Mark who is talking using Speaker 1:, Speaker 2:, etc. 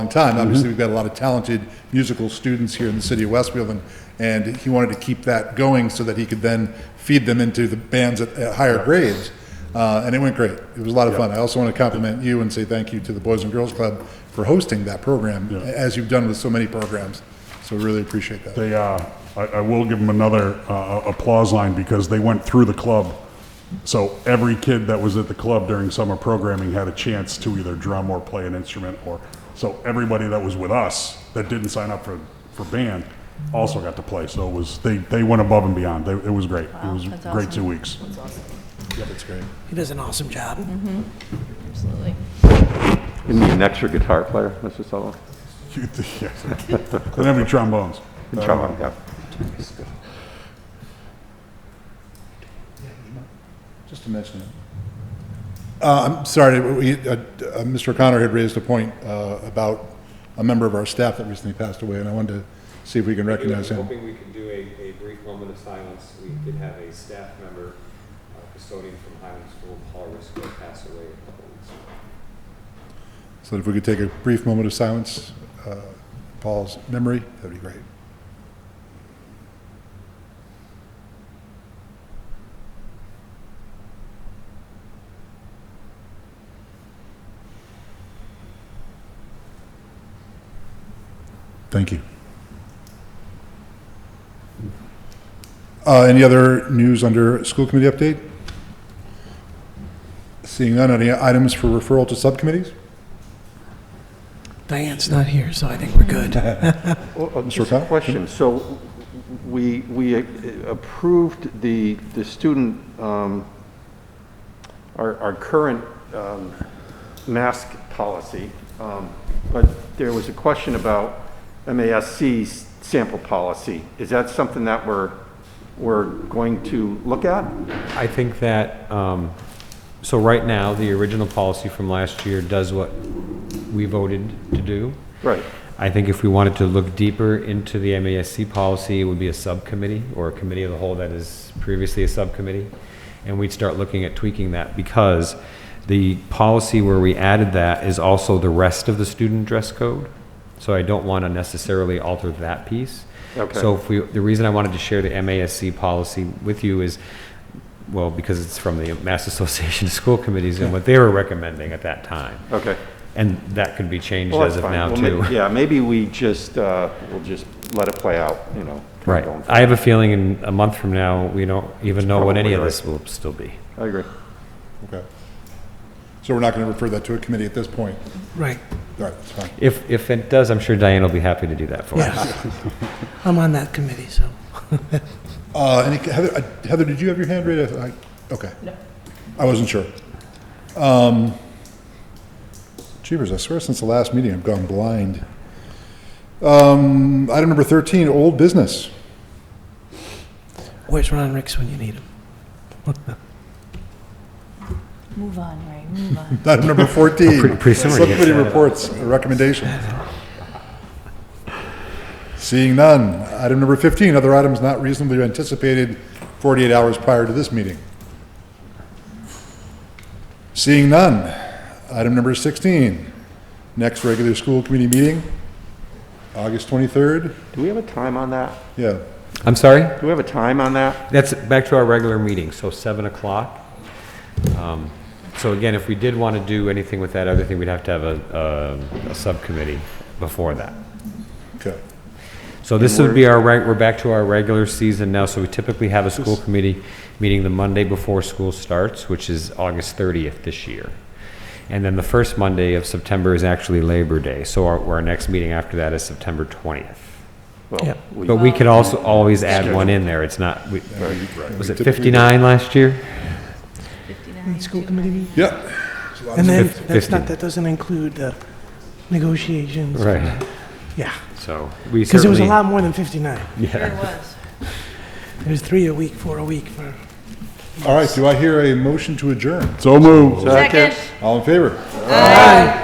Speaker 1: long time. Obviously, we've got a lot of talented musical students here in the city of Westfield, and, and he wanted to keep that going so that he could then feed them into the bands at, at higher grades. Uh, and it went great. It was a lot of fun. I also want to compliment you and say thank you to the Boys and Girls Club for hosting that program, as you've done with so many programs. So we really appreciate that.
Speaker 2: They, uh, I, I will give them another uh, applause line because they went through the club. So every kid that was at the club during summer programming had a chance to either drum or play an instrument or, so everybody that was with us that didn't sign up for, for band also got to play. So it was, they, they went above and beyond. They- It was great. It was
Speaker 3: that's
Speaker 2: great
Speaker 3: awesome.
Speaker 2: two weeks.
Speaker 1: That's great.
Speaker 4: He does an awesome job.
Speaker 3: Absolutely.
Speaker 5: You need an extra guitar player, Mr. Sullivan?
Speaker 2: Yes. They didn't have any trombones.
Speaker 5: Good job, yeah.
Speaker 1: Just to mention it. Uh, I'm sorry, we, uh, uh, Mr. O'Connor had raised a point uh, about a member of our staff that recently passed away, and I wanted to see if we can recognize
Speaker 6: I'm
Speaker 1: him.
Speaker 6: Hoping we could do a, a brief moment of silence. We did have a staff member, uh, custodian from Highland School, Paul Risco, pass away a couple weeks ago.
Speaker 1: So if we could take a brief moment of silence, uh, Paul's memory, that'd be great. Thank you. Uh, Any other news under school committee update? Seeing none, any items for referral to subcommittees?
Speaker 4: Diane's not here, so I think we're good.
Speaker 5: uh, Just a
Speaker 1: O'Connor?
Speaker 5: question. So we, we uh, approved the, the student, um, our, our current um, mask policy, um, but there was a question about MASC's sample policy. Is that something that we're, we're going to look at?
Speaker 7: I think that, um, so right now, the original policy from last year does what we voted to do.
Speaker 5: Right.
Speaker 7: I think if we wanted to look deeper into the MASC policy, it would be a subcommittee or a committee of the whole that is previously a subcommittee. And we'd start looking at tweaking that because the policy where we added that is also the rest of the student dress code. So I don't want to necessarily alter that piece.
Speaker 5: Okay.
Speaker 7: So if we, the reason I wanted to share the MASC policy with you is, well, because it's from the Mass Association of School Committees and what they were recommending at that time.
Speaker 5: Okay.
Speaker 7: And that could be changed
Speaker 5: Well,
Speaker 7: as
Speaker 5: that's
Speaker 7: of
Speaker 5: fine.
Speaker 7: now,
Speaker 5: Well, may-
Speaker 7: too.
Speaker 5: Yeah, maybe we just, uh, we'll just let it play out, you know. kinda
Speaker 7: Right.
Speaker 5: going
Speaker 7: I have a feeling in a month from now, we don't even know what any of
Speaker 5: probably
Speaker 7: this will still be.
Speaker 5: forward. I agree.
Speaker 1: Okay. So we're not going to refer that to a committee at this point?
Speaker 4: Right.
Speaker 1: All right, that's fine.
Speaker 7: If, if it does, I'm sure Diane will be happy to do that for us.
Speaker 4: Yes. I'm on that committee, so.
Speaker 1: Uh, any, Heather, uh, Heather, did you have your hand raised? I, okay. No. I wasn't sure. Um, jeepers, I swear since the last meeting, I've gone blind. Um, item number thirteen, old business.
Speaker 4: Where's Ron Ricks when you need him?
Speaker 3: Move on, Ray, move on.
Speaker 1: Item number fourteen.
Speaker 7: Pretty- pretty soon we're gonna get
Speaker 1: Subcommittee
Speaker 7: that.
Speaker 1: reports, and recommendations. Seeing none. Item number fifteen, other items not reasonably anticipated forty-eight hours prior to this meeting. Seeing none. Item number sixteen, next regular school committee meeting, August twenty-third.
Speaker 5: Do we have a time on that?
Speaker 1: Yeah,
Speaker 7: I'm sorry?
Speaker 5: Do we have a time on that?
Speaker 7: That's back to our regular meeting, so 7 o'clock. Um, So again, if we did want to do anything with that other thing, we'd have to have a, a, a subcommittee before that.
Speaker 1: okay.
Speaker 7: So this would be our, reg- we're back to our regular season now, so we typically have a school committee meeting the Monday before school starts, which is August 30th this year. And then the first Monday of September is actually Labor Day, so our, our next meeting after that is September 20th.
Speaker 4: Yeah.
Speaker 5: Well, we-
Speaker 7: But we could also
Speaker 4: Oh.
Speaker 7: always add one in there, it's not, we- was it
Speaker 1: Typically-
Speaker 7: 59 last year?
Speaker 3: 59,
Speaker 4: School
Speaker 3: two
Speaker 4: committee
Speaker 3: minutes.
Speaker 4: meeting?
Speaker 1: Yeah. There's a lot of-
Speaker 4: And then,
Speaker 7: Fif-
Speaker 4: that's not,
Speaker 7: fifteen.
Speaker 4: that doesn't include the negotiations.
Speaker 7: Right,
Speaker 4: Yeah,
Speaker 7: so we certainly.
Speaker 4: because it was a lot more than 59.
Speaker 3: There it was.
Speaker 4: It was three a week, four a week for,
Speaker 1: All right, do I hear a motion to adjourn?
Speaker 2: So moved.
Speaker 5: Second.
Speaker 3: Second.
Speaker 1: All in favor?